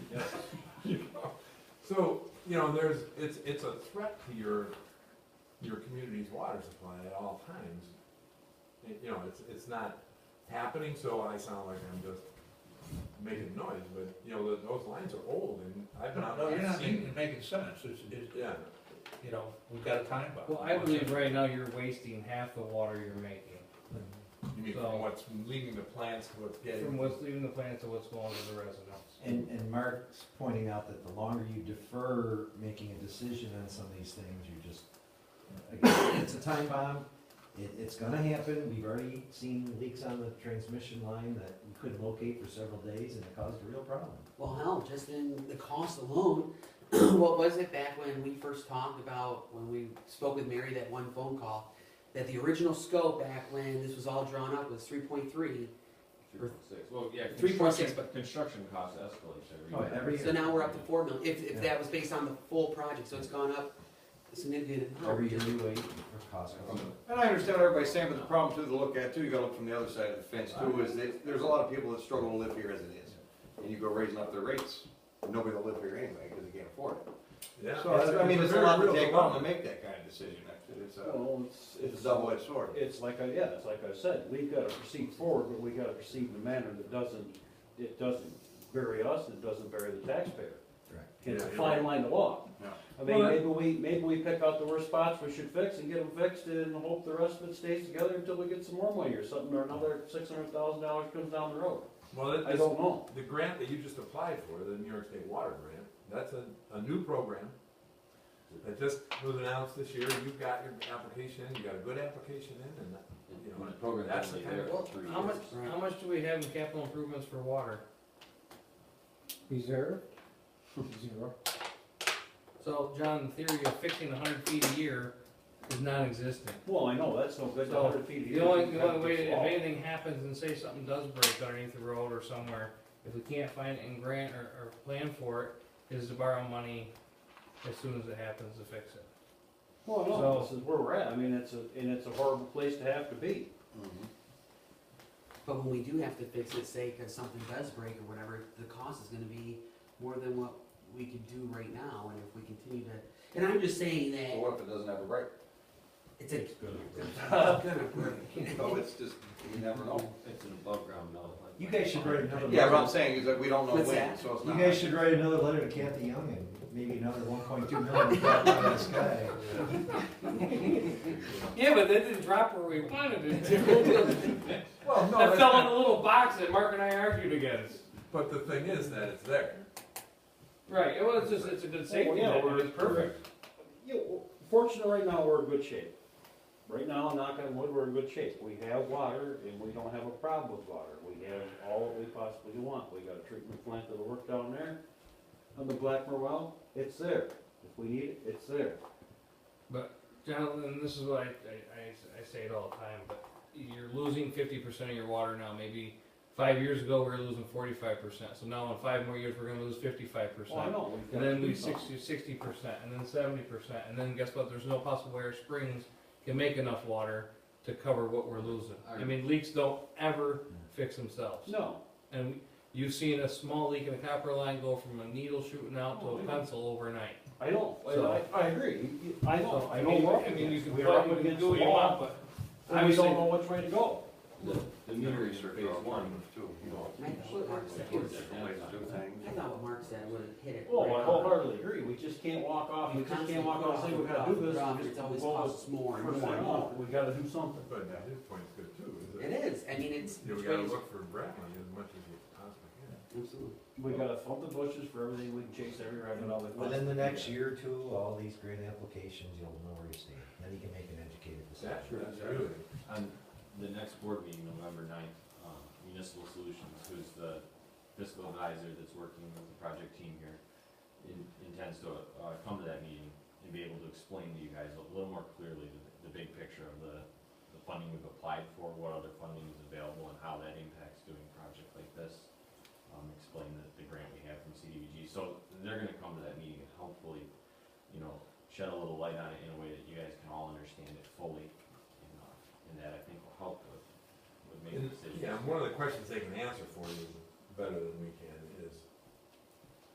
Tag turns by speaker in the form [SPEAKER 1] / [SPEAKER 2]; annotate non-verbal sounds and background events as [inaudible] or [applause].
[SPEAKER 1] So, you know, there's, it's, it's a threat to your, your community's water supply at all times. It- You know, it's, it's not happening, so I sound like I'm just making noise, but, you know, th- those lines are old and I've been out
[SPEAKER 2] Oh,
[SPEAKER 3] No, you're
[SPEAKER 1] there
[SPEAKER 3] not
[SPEAKER 1] seeing.
[SPEAKER 3] making, making sense, it's, it's,
[SPEAKER 1] Yeah,
[SPEAKER 3] you know, we've got a time bomb.
[SPEAKER 4] Well, I believe right now you're wasting half the water you're making.
[SPEAKER 1] you mean
[SPEAKER 4] So-
[SPEAKER 1] from what's leaving the plants to what's
[SPEAKER 4] From
[SPEAKER 1] getting,
[SPEAKER 4] what's leaving the plant to what's going to the residents.
[SPEAKER 5] And, and Mark's pointing out that the longer you defer making a decision on some of these things, you just, again, it's a time bomb. It, it's gonna happen. We've already seen leaks on the transmission line that we couldn't locate for several days and it caused a real problem.
[SPEAKER 6] Well, hell, just in the cost alone, what was it back when we first talked about, when we spoke with Mary that one phone call? That the original scope back when this was all drawn up was three point three,
[SPEAKER 7] Three point six, well, yeah,
[SPEAKER 6] 3.6,
[SPEAKER 7] construction, construction cost escalates every
[SPEAKER 5] Oh,
[SPEAKER 7] year.
[SPEAKER 5] every year.
[SPEAKER 6] so now we're up to four million, if, if
[SPEAKER 5] Yeah.
[SPEAKER 6] that was based on the full project, so it's gone up a significant. amount.
[SPEAKER 5] Every year we wait for cost.
[SPEAKER 2] And I understand what everybody's saying, but the problem too, to look at too, you gotta look from the other side of the fence too, is that there's a lot of people that struggle to live here as it is. And you go raising up their rates, nobody will live here anyway, because they can't afford it.
[SPEAKER 1] yeah.
[SPEAKER 2] So,
[SPEAKER 1] it's-
[SPEAKER 2] I mean,
[SPEAKER 1] it's
[SPEAKER 2] there's a lot
[SPEAKER 1] very
[SPEAKER 2] to
[SPEAKER 1] real
[SPEAKER 2] take on to
[SPEAKER 1] dilemma.
[SPEAKER 2] make that kind of decision, it's a,
[SPEAKER 8] Well, it's,
[SPEAKER 2] it's a
[SPEAKER 8] it's,
[SPEAKER 2] double-edged sword.
[SPEAKER 8] it's like, I yeah, it's like I said, we've gotta proceed forward, but we gotta proceed in a manner that doesn't, it doesn't bury us, it doesn't bury the taxpayer.
[SPEAKER 5] Correct.
[SPEAKER 8] It's a
[SPEAKER 1] Yeah, you're
[SPEAKER 8] fine line to walk.
[SPEAKER 2] Yeah.
[SPEAKER 8] I mean,
[SPEAKER 1] Well,
[SPEAKER 8] maybe we, maybe we pick out the worst spots we should fix and get them fixed and hope the rest of it stays together until we get some more money or something, or another six hundred thousand dollars comes down the road.
[SPEAKER 1] Well, it-
[SPEAKER 8] I don't know.
[SPEAKER 1] the grant that you just applied for, the New York State Water Grant, that's a, a new program that just was announced this year, you've got your application, in. you got a good application in, and, you know,
[SPEAKER 7] When the program's
[SPEAKER 1] that's
[SPEAKER 7] only
[SPEAKER 1] the kind
[SPEAKER 7] there
[SPEAKER 1] of-
[SPEAKER 7] for three
[SPEAKER 4] How much,
[SPEAKER 7] years.
[SPEAKER 4] how much do we have in capital improvements for water? Reserve? Zero. So, John, the theory of fixing hundred feet a year is non-existent.
[SPEAKER 8] Well, I know, that's no good,
[SPEAKER 4] So,
[SPEAKER 8] a hundred feet.
[SPEAKER 4] The only, the only way, if anything happens and say something does break underneath the road or somewhere, if we can't find it and grant or, or plan for it, is to borrow money as soon as it happens to fix it.
[SPEAKER 8] Well, no,
[SPEAKER 4] So-
[SPEAKER 8] this is where we're at, I mean, it's a, and it's a horrible place to have to be.
[SPEAKER 2] Mm-hmm.
[SPEAKER 6] But when we do have to fix it, say, cause something does break or whatever, the cost is gonna be more than what we could do right now, and if we continue to, and I'm just saying
[SPEAKER 2] But
[SPEAKER 6] that
[SPEAKER 2] what if it doesn't have a break? [laughs]
[SPEAKER 6] it's a.
[SPEAKER 8] good.
[SPEAKER 6] It's gonna break.
[SPEAKER 2] So it's just, you never know.
[SPEAKER 7] It's an above ground mill. like-
[SPEAKER 5] You guys should write another.
[SPEAKER 2] Yeah, what I'm saying is that we don't know
[SPEAKER 6] What's
[SPEAKER 2] when,
[SPEAKER 6] that?
[SPEAKER 2] so it's
[SPEAKER 5] You
[SPEAKER 2] not.
[SPEAKER 5] guys should write another letter to Kathy Young and maybe another one point two million dollars out of the sky.
[SPEAKER 4] Yeah, but that didn't drop where we wanted [laughs] it to.
[SPEAKER 1] Well, no,
[SPEAKER 4] That
[SPEAKER 1] that's
[SPEAKER 4] fell in
[SPEAKER 1] not-
[SPEAKER 4] a little box that Mark and I argued against.
[SPEAKER 1] but the thing is that it's there.
[SPEAKER 4] Right, it was just, it's a good safety
[SPEAKER 8] yeah,
[SPEAKER 4] net,
[SPEAKER 8] we're-
[SPEAKER 4] it's perfect.
[SPEAKER 8] You know, fortunate right now, we're in good shape. Right now, knock on wood, we're in good shape. We have water and we don't have a problem with water. We have all that we possibly want. We got a treatment plant that'll work down there. On the Blackmore well, it's there. If we need it, it's there.
[SPEAKER 4] Jonathan, this is what I, I, I- I say it all the time, but you're losing fifty percent of your water now, maybe five years ago, we were losing forty-five percent, so now in five more years, we're gonna lose fifty-five
[SPEAKER 8] Oh, I
[SPEAKER 4] percent.
[SPEAKER 8] know. we've got
[SPEAKER 4] And then we
[SPEAKER 8] to do something.
[SPEAKER 4] sixty, sixty percent, and then seventy percent, and then guess what, there's no possible way our springs can make enough water to cover what we're losing. I mean, leaks don't ever fix themselves.
[SPEAKER 8] No,
[SPEAKER 4] And you've seen a small leak in a copper line go from a needle shooting out to
[SPEAKER 8] Oh,
[SPEAKER 4] a
[SPEAKER 8] yeah.
[SPEAKER 4] pencil overnight.
[SPEAKER 8] I don't.
[SPEAKER 4] So-
[SPEAKER 8] I, I agree. You- you- I know, I
[SPEAKER 4] I
[SPEAKER 8] know.
[SPEAKER 4] mean,
[SPEAKER 8] we're up
[SPEAKER 4] I mean, you
[SPEAKER 8] against it.
[SPEAKER 4] can,
[SPEAKER 8] We
[SPEAKER 4] fight,
[SPEAKER 8] are up
[SPEAKER 4] you can
[SPEAKER 8] against
[SPEAKER 4] do
[SPEAKER 8] the
[SPEAKER 4] what you want,
[SPEAKER 8] law,
[SPEAKER 4] but
[SPEAKER 8] And we
[SPEAKER 4] obviously-
[SPEAKER 8] don't know which way to go.
[SPEAKER 7] The, the metering
[SPEAKER 2] Research
[SPEAKER 7] phase
[SPEAKER 2] on
[SPEAKER 7] one,
[SPEAKER 2] farming, too, you know.
[SPEAKER 6] I thought what Mark said
[SPEAKER 2] Different
[SPEAKER 6] was,
[SPEAKER 2] ways to do things.
[SPEAKER 6] I thought what Mark said would hit it.
[SPEAKER 8] Oh, I
[SPEAKER 6] right on.
[SPEAKER 8] wholeheartedly agree. We just can't walk off, we just can't walk off and say we gotta do this. We
[SPEAKER 6] Rob,
[SPEAKER 8] just
[SPEAKER 6] It's always
[SPEAKER 8] go
[SPEAKER 6] costs more and
[SPEAKER 8] First
[SPEAKER 6] more
[SPEAKER 8] thing
[SPEAKER 6] and
[SPEAKER 8] off,
[SPEAKER 6] more.
[SPEAKER 8] we gotta do something.
[SPEAKER 1] But his point is good too, is
[SPEAKER 6] It
[SPEAKER 1] that
[SPEAKER 6] is, I mean, it's,
[SPEAKER 1] you know, we
[SPEAKER 6] it's
[SPEAKER 1] gotta
[SPEAKER 6] ways-
[SPEAKER 1] look for grant money as much as you possibly can.
[SPEAKER 6] absolutely.
[SPEAKER 8] We gotta thump the bushes for everything, we can chase every rabbit out of the.
[SPEAKER 5] Within the next year or two, all these grant applications, you'll know where you stand, then you can make an educated decision.
[SPEAKER 1] That's, that's really.
[SPEAKER 7] on the next board meeting, November ninth, um, Municipal Solutions, who's the fiscal advisor that's working with the project team here, in- intends to, uh, come to that meeting and be able to explain to you guys a little more clearly the, the big picture of the, the funding we've applied for, what other funding is available, and how that impacts doing a project like this. Um, explain the, the grant we have from CDBG, so they're gonna come to that meeting and hopefully, you know, shed a little light on it in a way that you guys can all understand it fully, and, uh, and that I think will help with, with making
[SPEAKER 1] And,
[SPEAKER 7] decisions.
[SPEAKER 1] Yeah, and one of the questions they can answer for you is better than we can,